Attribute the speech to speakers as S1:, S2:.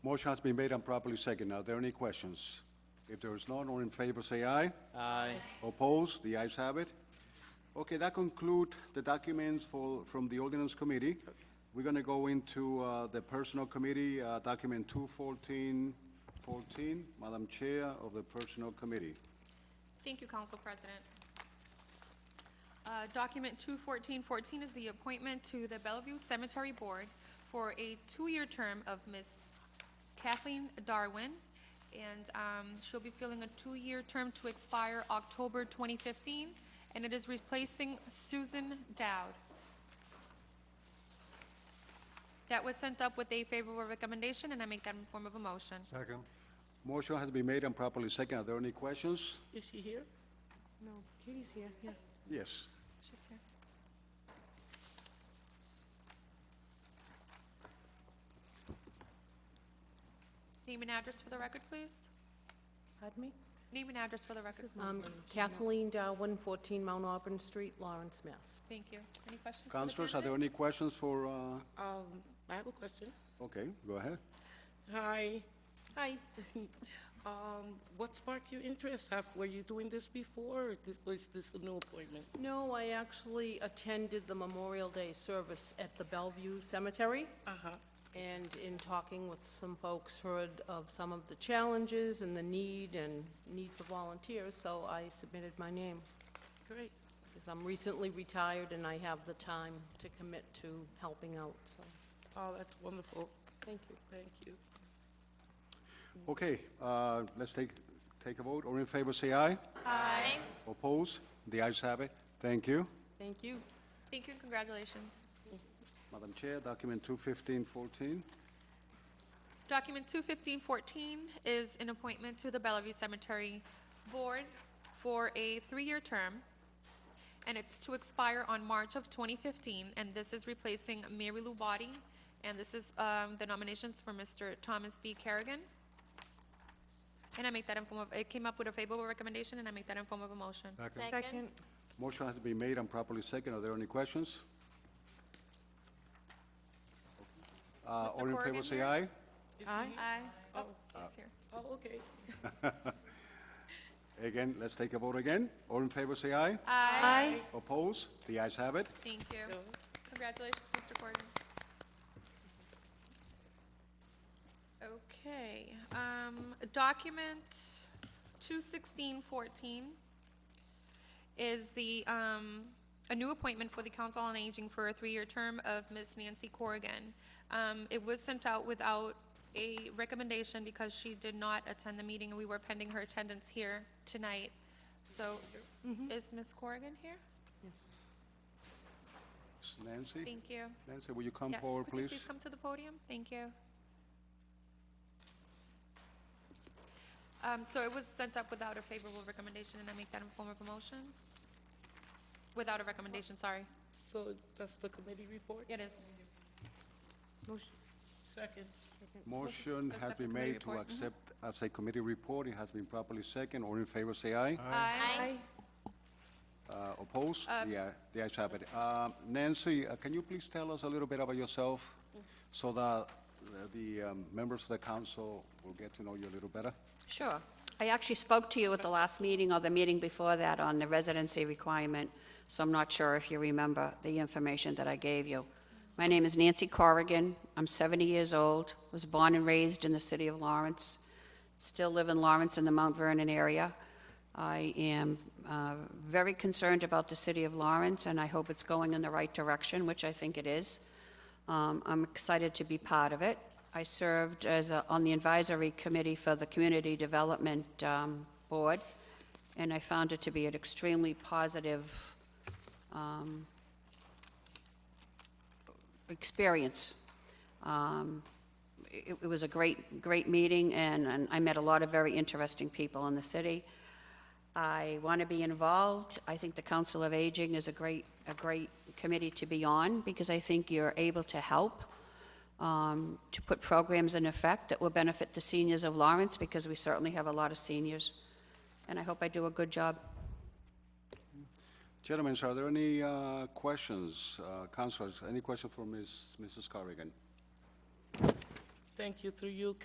S1: Motion has been made and properly seconded. Are there any questions? If there is none, all in favor, say aye.
S2: Aye.
S1: Opposed? The ayes have it. Okay, that conclude the documents for, from the ordinance committee. We're gonna go into, uh, the personnel committee, uh, document two fourteen fourteen, Madam Chair of the Personnel Committee.
S3: Thank you, Council President. Uh, Document 21414 is the appointment to the Bellevue Cemetery Board for a two-year term of Ms. Kathleen Darwin, and um, she'll be filling a two-year term to expire October 2015, and it is replacing Susan Dowd. That was sent up with a favorable recommendation, and I make that in form of a motion.
S4: Second.
S1: Motion has been made and properly seconded. Are there any questions?
S5: Is she here? No, Katie's here, yeah.
S1: Yes.
S3: She's here. Name and address for the record, please.
S5: Pardon me?
S3: Name and address for the record. please.
S5: Um, Kathleen Darwin, 14 Mount Auburn Street, Lawrence, Mass.
S3: Thank you. Any questions? for the
S1: Councilors, are there
S3: candidate?
S1: any questions for, uh,
S5: Um, I have a question.
S1: okay, go ahead.
S5: Hi,
S3: Hi.
S5: um, what sparked your interest? Have, were you doing this before, or this, was this a new appointment?
S6: No, I actually attended the Memorial Day service at the Bellevue Cemetery. And in talking with some folks, heard of some of the challenges and the need and need for volunteers, so I submitted my name.
S5: Great.
S6: Because I'm recently retired and I have the time to commit to helping out, so,
S5: Oh, that's wonderful.
S6: thank you.
S5: Thank you.
S1: Okay, uh, let's take, take a vote. All in favor, say aye.
S3: Aye.
S1: Opposed? The ayes have it. Thank you.
S6: Thank you.
S3: Thank you and congratulations.
S1: Madam Chair, document two fifteen fourteen.
S3: Document 21514 is an appointment to the Bellevue Cemetery Board for a three-year term, and it's to expire on March of 2015, and this is replacing Mary Lou Body, and this is um, the nominations for Mr. Thomas B. Kerrigan. And I make that in form of, it came up with a favorable recommendation, and I make that in form of a motion.
S7: Second.
S1: Motion has been made and properly second. Are there any questions? Uh,
S3: Mr.
S1: All in
S3: Corrigan
S1: favor, say
S3: here?
S1: aye.
S7: Aye.
S3: Aye. Oh, he's here.
S5: Oh, okay.
S1: Again, let's take a vote again. All in favor, say aye.
S3: Aye.
S7: Aye.
S1: Opposed? The ayes have it.
S3: Thank you.
S5: So,
S3: Congratulations, Mr. Gordon. Okay, um, document two sixteen fourteen is the, um, a new appointment for the Council on Aging for a three-year term of Ms. Nancy Corrigan. Um, it was sent out without a recommendation because she did not attend the meeting, and we were pending her attendance here tonight. So, is Ms. Corrigan here?
S1: Nancy,
S3: Thank you.
S1: Nancy, will you come
S3: Yes,
S1: forward,
S3: would you
S1: please?
S3: please come to the podium? Thank you. Um, So it was sent up without a favorable recommendation, and I make that in form of a motion? Without a recommendation, sorry.
S5: So that's the committee report?
S3: It is.
S5: Second.
S1: Motion has
S3: Accept the
S1: been
S3: committee
S1: made to
S3: report. Mhm.
S1: accept as a committee report. It has been properly second. All in favor, say aye.
S3: Aye.
S1: Uh, Opposed?
S3: Um,
S1: Yeah, the ayes have it. Uh, Nancy, uh, can you please tell us a little bit about yourself
S3: Mm.
S1: so that uh, the um, members of the council will get to know you a little better?
S7: Sure. I actually spoke to you at the last meeting or the meeting before that on the residency requirement, so I'm not sure if you remember the information that I gave you. My name is Nancy Corrigan. I'm 70 years old, was born and raised in the city of Lawrence, still live in Lawrence in the Mount Vernon area. I am uh, very concerned about the city of Lawrence, and I hope it's going in the right direction, which I think it is. Um, I'm excited to be part of it. I served as, a- on the advisory committee for the Community Development um, Board, and I found it to be an extremely positive um, experience. Um, It it was a great, great meeting, and and I met a lot of very interesting people in the city. I want to be involved. I think the Council of Aging is a great, a great committee to be on because I think you're able to help um, to put programs in effect that will benefit the seniors of Lawrence because we certainly have a lot of seniors. And I hope I do a good job.
S1: Gentlemen, are there any uh, questions? Uh, Councilors, any question for Ms. Mrs. Corrigan?
S5: Thank you through you,